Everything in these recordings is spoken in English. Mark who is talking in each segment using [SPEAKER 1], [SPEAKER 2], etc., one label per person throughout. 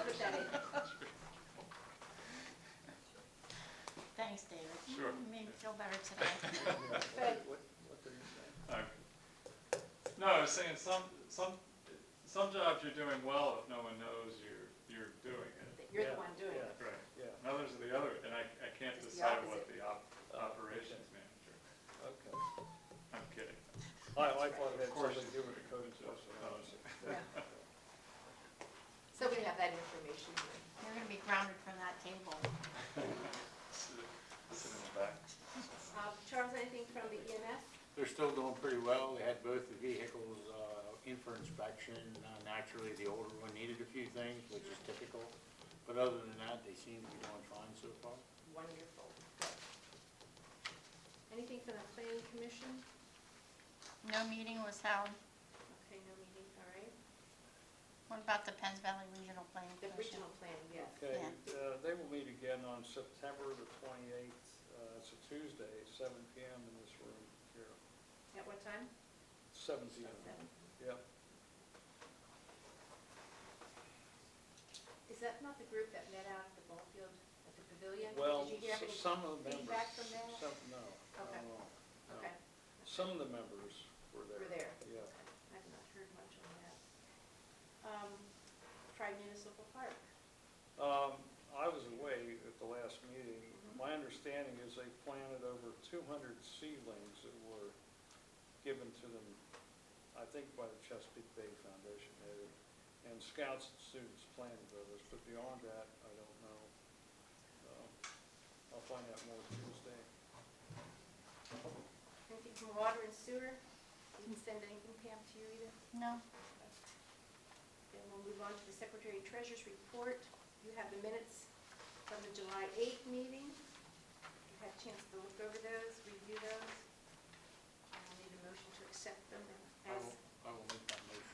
[SPEAKER 1] put that in. Thanks, David.
[SPEAKER 2] Sure.
[SPEAKER 1] Mm, Made me feel better today.
[SPEAKER 3] What, what- what did you say?
[SPEAKER 2] Okay. No, I was saying some, some, some jobs you're doing well if no one knows you're, you're doing it.
[SPEAKER 4] that you're the one doing it.
[SPEAKER 3] Yeah,
[SPEAKER 2] Right.
[SPEAKER 3] yeah,
[SPEAKER 2] And others are the other, and I, I can't
[SPEAKER 4] It's the
[SPEAKER 2] decide what the op,
[SPEAKER 3] Oh, okay.
[SPEAKER 2] operations manager.
[SPEAKER 3] okay.
[SPEAKER 2] I'm kidding.
[SPEAKER 3] I, I thought it had
[SPEAKER 2] Of course
[SPEAKER 3] something to do with the
[SPEAKER 2] it's-
[SPEAKER 3] code
[SPEAKER 2] it's-
[SPEAKER 3] enforcement
[SPEAKER 2] oh.
[SPEAKER 3] officer.
[SPEAKER 4] Yeah. So we have that information here.
[SPEAKER 1] You're gonna be grounded from that table.
[SPEAKER 2] Listen in the back.
[SPEAKER 4] Uh, Charles, anything from the E EMS?
[SPEAKER 5] They're still doing pretty well. We had both the vehicles uh, in for inspection. Uh, Naturally, the older one needed a few things, which is typical. But other than that, they seem to be doing fine so far.
[SPEAKER 4] Wonderful. Anything from the planning commission?
[SPEAKER 1] No meeting was held.
[SPEAKER 4] Okay, no meeting, all right.
[SPEAKER 1] What about the Penns Valley Regional Planning
[SPEAKER 4] The
[SPEAKER 1] Commission?
[SPEAKER 4] regional plan, yes.
[SPEAKER 3] Okay,
[SPEAKER 1] Yeah.
[SPEAKER 3] uh, they will meet again on September the twenty-eighth, uh, it's a Tuesday, seven P M in this room here,
[SPEAKER 4] At what time?
[SPEAKER 3] seven P M,
[SPEAKER 4] Seven.
[SPEAKER 3] yeah.
[SPEAKER 4] Is that not the group that met out at the ball field, at the pavilion?
[SPEAKER 3] Well,
[SPEAKER 4] Did you hear
[SPEAKER 3] s-
[SPEAKER 4] any-
[SPEAKER 3] some of the members.
[SPEAKER 4] feedback from that?
[SPEAKER 3] Some, no, no,
[SPEAKER 4] Okay.
[SPEAKER 3] no, no.
[SPEAKER 4] Okay,
[SPEAKER 3] Some of the members were there.
[SPEAKER 4] we're there.
[SPEAKER 3] Yeah.
[SPEAKER 4] I've not heard much on that. Um, Tri Municipal Park,
[SPEAKER 3] Um, I was away at the last meeting. My understanding is they planted over two hundred seedlings that were given to them, I think by the Chesapeake Bay Foundation, maybe. And scouts and students planted those, but beyond that, I don't know. Um, I'll find out more Tuesday.
[SPEAKER 4] anything from water and sewer? Didn't send anything Pam to you either?
[SPEAKER 1] No,
[SPEAKER 4] And we'll move on to the Secretary Treasurer's report. You have the minutes from the July 8th meeting. You had a chance to look over those, review those. I will need a motion to accept them
[SPEAKER 5] I
[SPEAKER 4] as,
[SPEAKER 5] will, I will make that motion.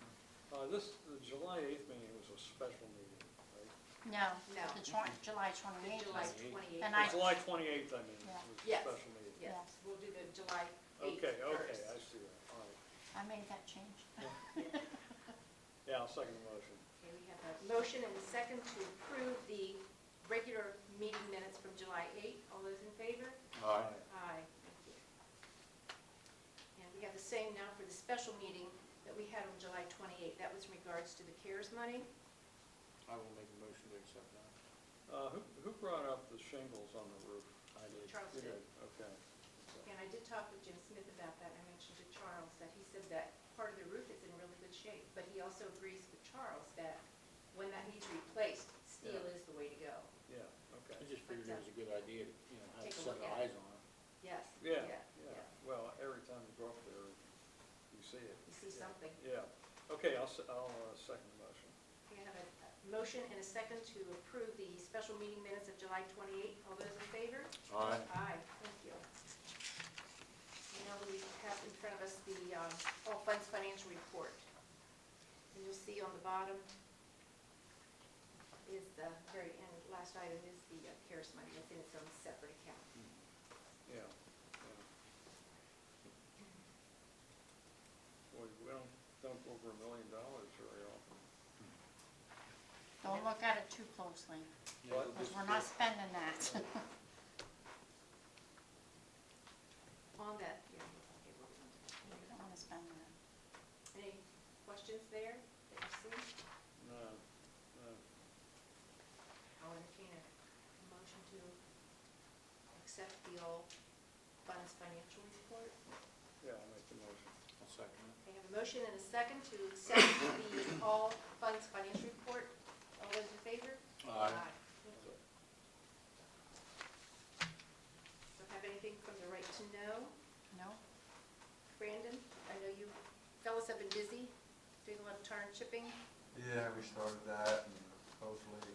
[SPEAKER 3] Uh, this, the July eighth meeting was a special meeting, right?
[SPEAKER 1] no.
[SPEAKER 4] No.
[SPEAKER 1] The twen- July
[SPEAKER 4] the
[SPEAKER 1] twenty-eighth.
[SPEAKER 4] July
[SPEAKER 5] Eight.
[SPEAKER 4] 28th.
[SPEAKER 1] And
[SPEAKER 3] The
[SPEAKER 1] I-
[SPEAKER 3] July twenty-eighth, I mean,
[SPEAKER 1] Yeah.
[SPEAKER 3] was a
[SPEAKER 4] Yes.
[SPEAKER 3] special meeting.
[SPEAKER 4] Yes, we'll do the July 8th
[SPEAKER 3] Okay, okay,
[SPEAKER 4] first.
[SPEAKER 3] I see that, all right.
[SPEAKER 1] I made that change.
[SPEAKER 3] Yeah, I'll second the motion.
[SPEAKER 4] Okay, we have a motion and a second to approve the regular meeting minutes from July 8th. All those in favor?
[SPEAKER 5] Aye.
[SPEAKER 4] Aye, thank you. And we have the same now for the special meeting that we had on July 28th. That was in regards to the CARES money.
[SPEAKER 5] I will make a motion to accept that.
[SPEAKER 3] Uh, who, who brought up the shingles on the roof?
[SPEAKER 5] I did.
[SPEAKER 4] Charles
[SPEAKER 3] You
[SPEAKER 4] did.
[SPEAKER 3] did, Okay.
[SPEAKER 4] And I did talk with Jim Smith about that. I mentioned to Charles that he said that part of the roof is in really good shape. But he also agrees with Charles that when that needs replaced, steel is the way to go.
[SPEAKER 3] Yeah, okay.
[SPEAKER 5] I just figured it was a good idea to, you know, have
[SPEAKER 4] Take a
[SPEAKER 5] set
[SPEAKER 4] look at
[SPEAKER 5] eyes on it.
[SPEAKER 4] Yes.
[SPEAKER 3] Yeah,
[SPEAKER 4] yeah.
[SPEAKER 3] yeah, well, every time you go up there, you see it.
[SPEAKER 4] You see
[SPEAKER 3] Yeah.
[SPEAKER 4] something.
[SPEAKER 3] Yeah, okay, I'll, se- I'll uh, second the motion.
[SPEAKER 4] We have a a motion and a second to approve the special meeting minutes of July 28th. All those in favor?
[SPEAKER 5] Aye.
[SPEAKER 4] Aye, thank you. Now we have in front of us the um, All Funds Financial Report. And you'll see on the bottom is the very end, last item is the uh, CARES money that's in its own separate account.
[SPEAKER 3] Yeah, yeah. Boy, we don't dump over a million dollars very often.
[SPEAKER 1] Don't look at it too closely,
[SPEAKER 5] Yeah,
[SPEAKER 3] What?
[SPEAKER 5] it'll
[SPEAKER 1] because
[SPEAKER 5] just
[SPEAKER 1] we're
[SPEAKER 5] be-
[SPEAKER 1] not spending that.
[SPEAKER 4] On that, yeah, okay, we'll get into
[SPEAKER 1] We
[SPEAKER 4] that.
[SPEAKER 1] don't wanna spend that.
[SPEAKER 4] Any questions there that you see?
[SPEAKER 3] No, no.
[SPEAKER 4] I'll entertain a motion to accept the All Funds Financial Report.
[SPEAKER 3] Yeah, I'll make the motion.
[SPEAKER 5] I'll second it.
[SPEAKER 4] I have a motion and a second to accept the all funds financial report. All those in favor?
[SPEAKER 5] Aye.
[SPEAKER 4] Thank you. Don't have anything from the right to know.
[SPEAKER 1] No?
[SPEAKER 4] Brandon, I know you fellas have been busy doing a lot of tar and chipping.
[SPEAKER 6] Yeah, we started that, and hopefully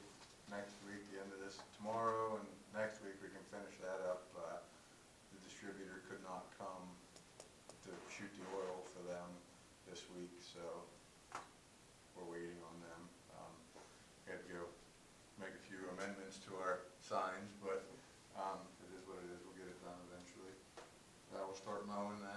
[SPEAKER 6] next week, the end of this, tomorrow and next week, we can finish that up. Uh, The distributor could not come to shoot the oil for them this week, so we're waiting on them. Um, We had to go make a few amendments to our signs, but um, it is what it is, we'll get it done eventually. I will start mowing that